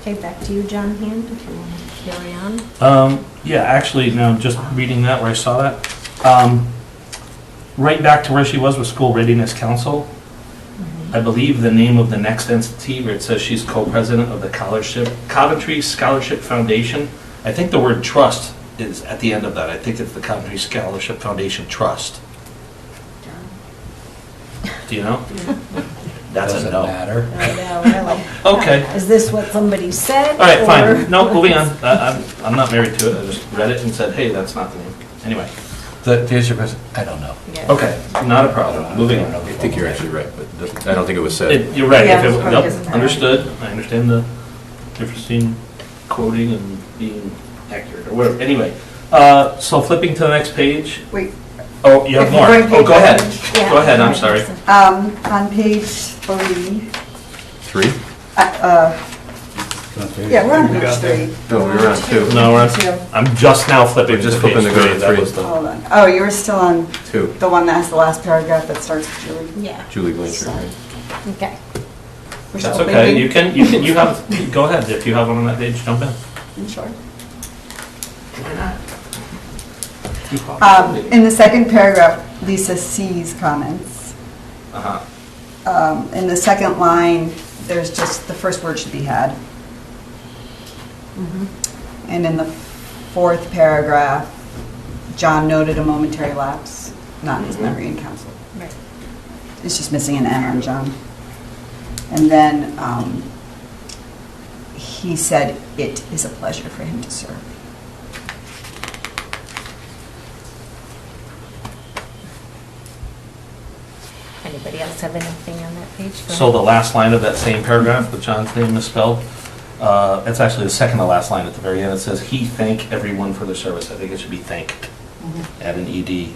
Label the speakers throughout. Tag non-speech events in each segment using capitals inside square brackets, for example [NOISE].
Speaker 1: Okay, back to you, John Hand, if you want to carry on.
Speaker 2: Um, yeah, actually, no, just reading that where I saw that. Um, right back to where she was with School Readiness Council. I believe the name of the next entity where it says she's co-president of the Scholarship, Coventry Scholarship Foundation. I think the word trust is at the end of that. I think it's the Coventry Scholarship Foundation Trust. Do you know? That's a
Speaker 3: Doesn't
Speaker 2: no.
Speaker 3: matter.
Speaker 1: Oh,
Speaker 2: Okay.
Speaker 1: Is this what somebody said?
Speaker 2: All right,
Speaker 1: or-
Speaker 2: fine. No, moving on. I- I'm, I'm not married to it. I just read it and said, hey, that's not the name. Anyway,
Speaker 3: The, the answer is, I don't know.
Speaker 1: Yeah.
Speaker 2: okay, not a problem. Moving
Speaker 3: I
Speaker 2: on.
Speaker 3: don't know.
Speaker 4: I think you're actually right, but it doesn't- I don't think it was
Speaker 2: It-
Speaker 4: said.
Speaker 2: You're right.
Speaker 5: Yeah,
Speaker 2: If
Speaker 5: it
Speaker 2: it-
Speaker 5: probably
Speaker 2: Nope,
Speaker 5: doesn't matter.
Speaker 2: understood. I understand the difference between quoting and being accurate or whatever. Anyway, uh, so flipping to the next page.
Speaker 5: Wait,
Speaker 2: Oh, you have
Speaker 5: If
Speaker 2: more.
Speaker 5: you're going
Speaker 2: Oh, go
Speaker 5: page-
Speaker 2: ahead.
Speaker 1: Yeah.
Speaker 2: Go ahead, I'm sorry.
Speaker 5: um, on page three,
Speaker 4: Three?
Speaker 5: uh, uh, yeah, we're on page three.
Speaker 4: No, we were on two.
Speaker 2: No, we're on-
Speaker 5: Two.
Speaker 2: I'm just now flipping
Speaker 4: We're
Speaker 2: to
Speaker 4: just
Speaker 2: page
Speaker 4: flipping to go to
Speaker 2: three. That
Speaker 4: three.
Speaker 2: was the-
Speaker 5: Hold on. Oh, you were still on
Speaker 4: Two.
Speaker 5: the one that has the last paragraph that starts with Julie.
Speaker 1: Yeah,
Speaker 4: Julie Blanchard, right?
Speaker 1: okay.
Speaker 5: We're
Speaker 2: That's
Speaker 5: still
Speaker 2: okay. You
Speaker 5: thinking?
Speaker 2: can, you can, you have, go ahead. If you have one on that page, jump in.
Speaker 5: You Sure.
Speaker 2: You probably
Speaker 5: Um,
Speaker 2: did.
Speaker 5: in the second paragraph, Lisa C's comments.
Speaker 2: Uh-huh.
Speaker 5: Um, in the second line, there's just, the first word should be had.
Speaker 2: Mm-hmm.
Speaker 5: And in the fourth paragraph, John noted a momentary lapse, not in his
Speaker 2: Mhm.
Speaker 5: memory in council.
Speaker 1: Right.
Speaker 5: It's just missing an N on John. And then um, he said, "It is a pleasure for him to serve."
Speaker 1: Anybody else have anything on that page? Go
Speaker 2: So
Speaker 1: ahead.
Speaker 2: the last line of that same paragraph, with John's name misspelled, uh, it's actually the second to last line at the very end. It says, "He thank everyone for their service." I think it should be thanked. Add an E ED.
Speaker 5: It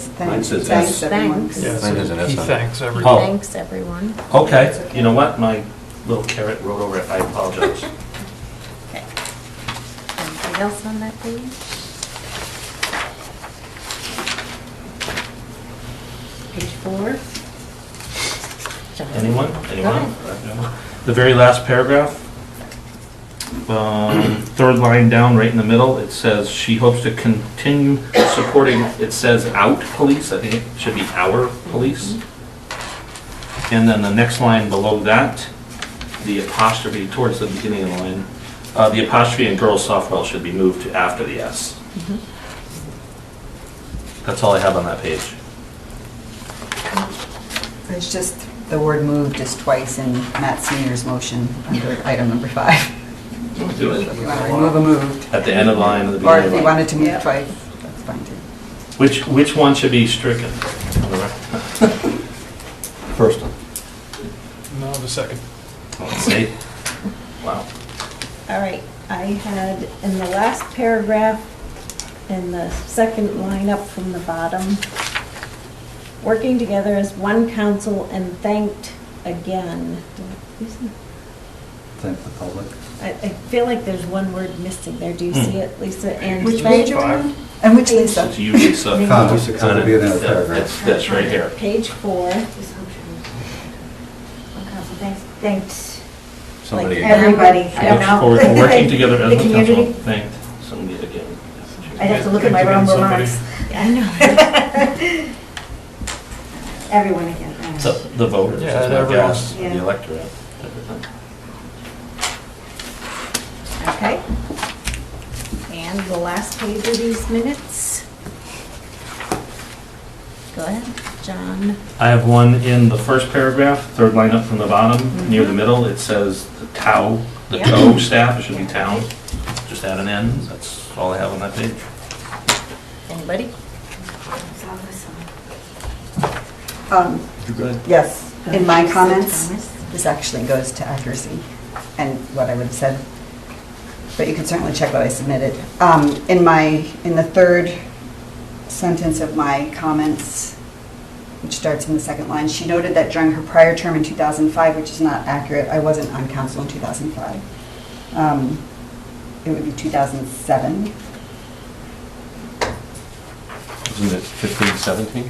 Speaker 5: says,
Speaker 4: Mine
Speaker 5: "Thanks,
Speaker 4: says
Speaker 5: thanks
Speaker 4: S.
Speaker 5: everyone."
Speaker 1: Thanks.
Speaker 6: Yes,
Speaker 4: Mine has an S
Speaker 6: he
Speaker 4: on it.
Speaker 6: thanks everyone.
Speaker 2: Oh.
Speaker 1: Thanks, everyone.
Speaker 2: Okay, you know what? My little carrot rolled over it. I apologize.
Speaker 1: [LAUGHS] Okay. Anything else on that page? Page four? John.
Speaker 2: Anyone? Anyone?
Speaker 1: ahead.
Speaker 2: The very last paragraph, um, third line down, right in the middle, it says, "She hopes to continue supporting," it says "out police," I think it should be "our police." And then the next line below that, the apostrophe towards the beginning of the line, uh, the apostrophe in girls softball should be moved to after the S. That's all I have on that page.
Speaker 5: It's just the word "moved" is twice in Matt Senior's motion under item number five. If you want to remove a moved,
Speaker 2: At the end of the line, at the
Speaker 5: or
Speaker 2: beginning of
Speaker 5: if
Speaker 2: the
Speaker 5: you
Speaker 2: line.
Speaker 5: wanted to move twice, that's fine too.
Speaker 2: Which, which one should be stricken? First one.
Speaker 6: No, the second.
Speaker 2: See? Wow.
Speaker 1: All right, I had in the last paragraph, in the second line up from the bottom, working together as one council and thanked again.
Speaker 3: Thank the public.
Speaker 1: I, I feel like there's one word missing there. Do you
Speaker 2: Hmm.
Speaker 1: see it, Lisa? And
Speaker 5: Which
Speaker 1: thank-
Speaker 5: page are we on? And which Lisa?
Speaker 2: It's usually so.
Speaker 3: Con, just to kind of be in another paragraph.
Speaker 2: It's this right here.
Speaker 1: Page four.
Speaker 7: Thanks, thanks,
Speaker 4: Somebody
Speaker 1: Like every-
Speaker 4: again.
Speaker 7: everybody, I don't
Speaker 2: Yes,
Speaker 7: know.
Speaker 2: we're
Speaker 7: [LAUGHS]
Speaker 1: [LAUGHS]
Speaker 2: Working together as
Speaker 7: The
Speaker 2: a council.
Speaker 7: community.
Speaker 2: Thank somebody again.
Speaker 7: I'd have to look at my own remarks.
Speaker 1: I know.
Speaker 2: [LAUGHS]
Speaker 7: Everyone again. thanks.
Speaker 2: So the voters,
Speaker 6: Yeah,
Speaker 2: that's my
Speaker 6: everyone.
Speaker 2: guess, the
Speaker 7: Yeah.
Speaker 2: electorate. everything.
Speaker 1: Okay. And the last page of these minutes. Go ahead, John.
Speaker 2: I have one in the first paragraph, third line up from the bottom, near the middle. It says the TOW, the
Speaker 1: Yeah.
Speaker 2: TOW staff, it should be town. Just add an N, that's all I have on that page.
Speaker 1: Anybody?
Speaker 5: Um,
Speaker 2: You good?
Speaker 5: Yes, in my
Speaker 7: Lisa
Speaker 5: comments,
Speaker 7: Thomas.
Speaker 5: this actually goes to accuracy and what I would have said, but you can certainly check what I submitted. Um, In my, in the third sentence of my comments, which starts in the second line, she noted that during her prior term in 2005, which is not accurate, I wasn't on council in 2005. Um, It would be 2007.
Speaker 4: Isn't it 15, 17?